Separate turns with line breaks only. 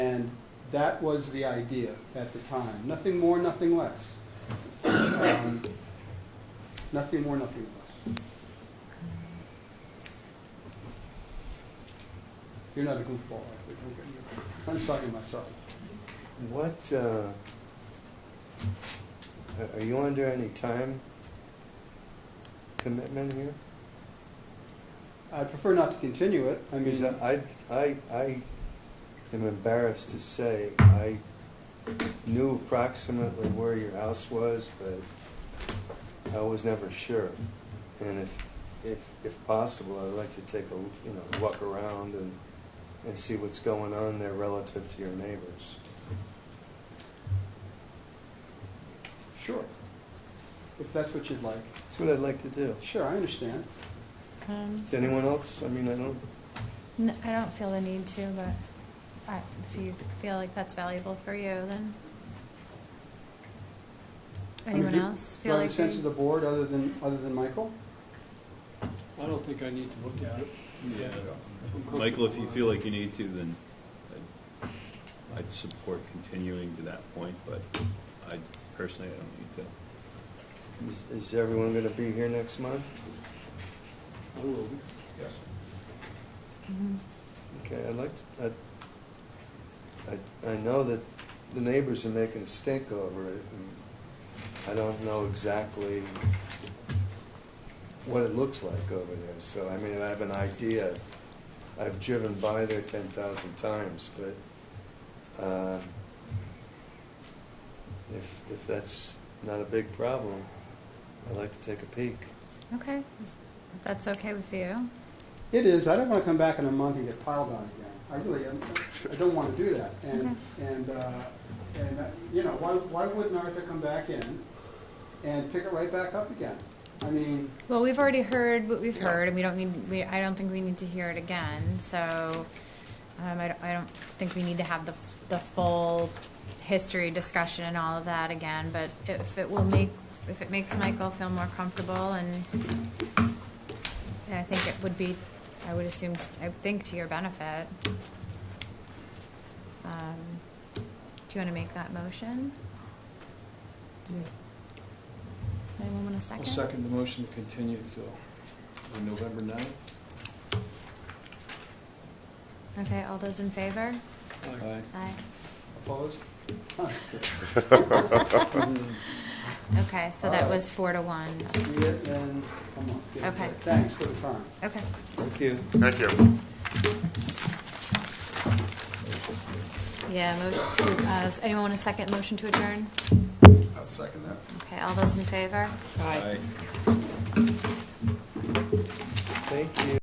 That was the idea at the time. Nothing more, nothing less. Um, Nothing more, nothing less. You're not a goofball, I think. Okay. I'm talking to myself.
What, uh, are- are you under any time commitment here?
I prefer not to continue it. I mean,
Because I, I, I am embarrassed to say, I knew approximately where your house was, but I was never sure. And if, if, if possible, I'd like to take a, you know, walk around and, and see what's going on there relative to your neighbors.
sure. If that's what you'd like.
That's what I'd like to do.
Sure, I understand.
Um,
Is anyone else, I mean, I don't,
n- I don't feel the need to, but I- if you feel like that's valuable for you, then.
I mean,
Anyone
do-
else
Do I
feel
have a
like
sense of the
they?
board other than, other than Michael?
I don't think I need to look at it.
Yeah.
I'm comfortable
Michael, if you feel
with
like you need to, then I'd- I'd support continuing to that point, but I personally, I don't need to.
is, is everyone gonna be here next month?
it. I will. be.
Mhm.
Okay, I'd like, to- I, I, I know that the neighbors are making a stink over it, and I don't know exactly what it looks like over there, so, I mean, I have an idea. I've driven by there ten thousand times, but, uh, if, if that's not a big problem, I'd like to take a peek.
Okay, if that's okay with you.
It is. I don't want to come back in a month and get piled on again. I really, I don't want to do that. And, and, uh, and, uh, you know, why, why wouldn't Arthur come back in and pick it right back up again? I mean,
Well, we've already heard what we've heard, and we don't need, we, I don't think we need to hear it again, so, um, I, don't- I don't think we need to have the, f- the full history discussion and all of that again, but if it will make, if it makes Michael feel more comfortable, and and I think it would be, I would assume, I would think to your benefit. Um, Do you wanna make that motion? Anyone want a 2nd
I'll second the motion to continue till on November ninth.
Okay, all those in favor?
Uh,
Aye.
Aye.
opposed? Huh.
Okay, so that was four to one.
See it and come on. Yeah,
Okay.
Thanks for the time.
Okay.
Thank you.
Thank you.
Yeah, mo- uh, does anyone want a second motion to adjourn?
I'll second that.
Okay, all those in favor?
Aye.